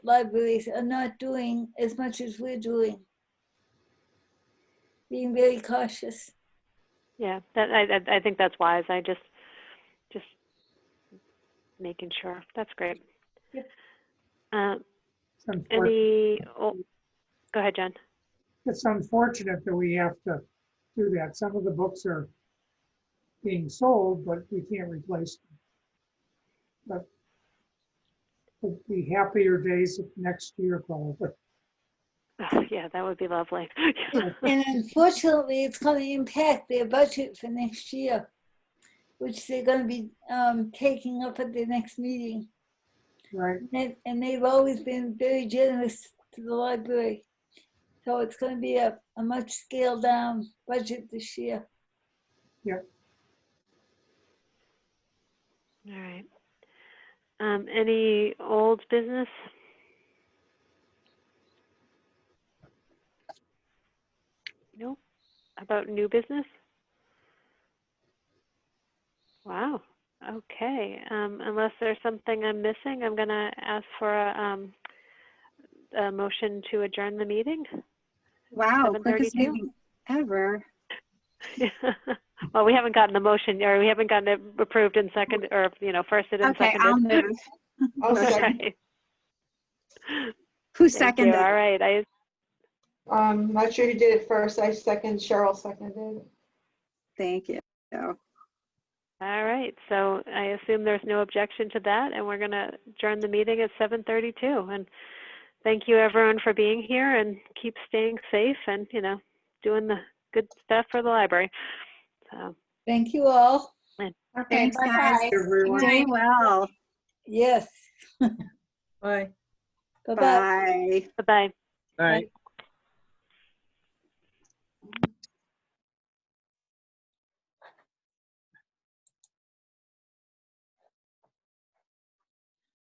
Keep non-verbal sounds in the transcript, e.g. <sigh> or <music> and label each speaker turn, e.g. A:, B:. A: libraries are not doing as much as we're doing. Being very cautious.
B: Yeah, that, I, I, I think that's wise. I just, just making sure. That's great.
A: Yep.
B: Um,
C: It's unfortunate,
B: any, oh, go ahead, Jen. <laughs>
C: it's unfortunate that we have to do that. Some of the books are being sold, but we can't replace them. But it'd be happier days of next year probably.
B: Oh, yeah, that would be lovely. <laughs>
A: And unfortunately, it's going to impact their budget for next year, which they're going to be um, taking up at the next meeting.
C: Right,
A: And, and they've always been very generous to the library. So it's going to be a, a much scaled down budget this year.
B: All right. Um, any old business? Nope. About new business? Wow. Okay. Um, unless there's something I'm missing, I'm gonna ask for a, um, a motion to adjourn the meeting. <laughs>
D: Wow, quickest
B: 7:32?
D: meeting ever.
B: well, we haven't gotten a motion, or we haven't gotten it approved and second, or you know, firsted and
D: Okay,
B: seconded.
D: I'll move.
E: I'll
B: <laughs>
E: second.
B: Okay. Thank you.
D: Who seconded?
B: All right, I,
E: Um, not sure who did it first. I second, Cheryl seconded.
D: Thank you. So,
B: all right, so I assume there's no objection to that, and we're going to adjourn the meeting at 7:32. And thank you, everyone, for being here, and keep staying safe and, you know, doing the good stuff for the library. So,
A: Thank you all.
D: Thanks, guys.
C: everyone.
D: Doing well.
A: Yes. <laughs>
F: Bye.
A: Bye bye.
D: Bye.
B: Bye-bye.
F: All right.